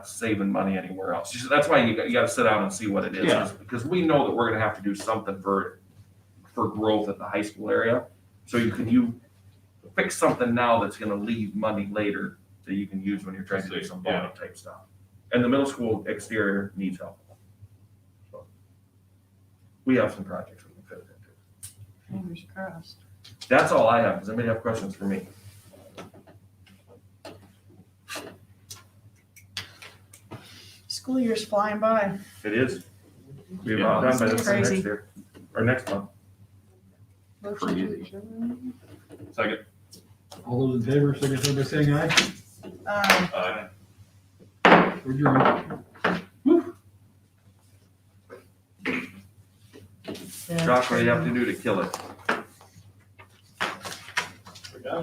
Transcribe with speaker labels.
Speaker 1: saving money anywhere else. She said, that's why you got, you gotta sit down and see what it is,
Speaker 2: Yeah.
Speaker 1: is because we know that we're gonna have to do something for, for growth at the high school area. So you can, you fix something now that's gonna leave money later that you can use when you're trying to do some
Speaker 2: Yeah.
Speaker 1: bottom type stuff. And the middle school exterior needs help. So, We have some projects we can fit it into.
Speaker 3: Fingers crossed.
Speaker 1: That's all I have. Does anybody have questions for me?
Speaker 3: School year's flying by.
Speaker 1: It is. We have about done by this time next
Speaker 3: Crazy.
Speaker 1: year, or next month.
Speaker 3: Motion to
Speaker 2: Crazy.
Speaker 3: adjourn.
Speaker 1: Second.
Speaker 4: All those in favor, signify by saying aye.
Speaker 3: Um,
Speaker 4: We're adjourned.
Speaker 1: Josh, what do you have to do to kill it?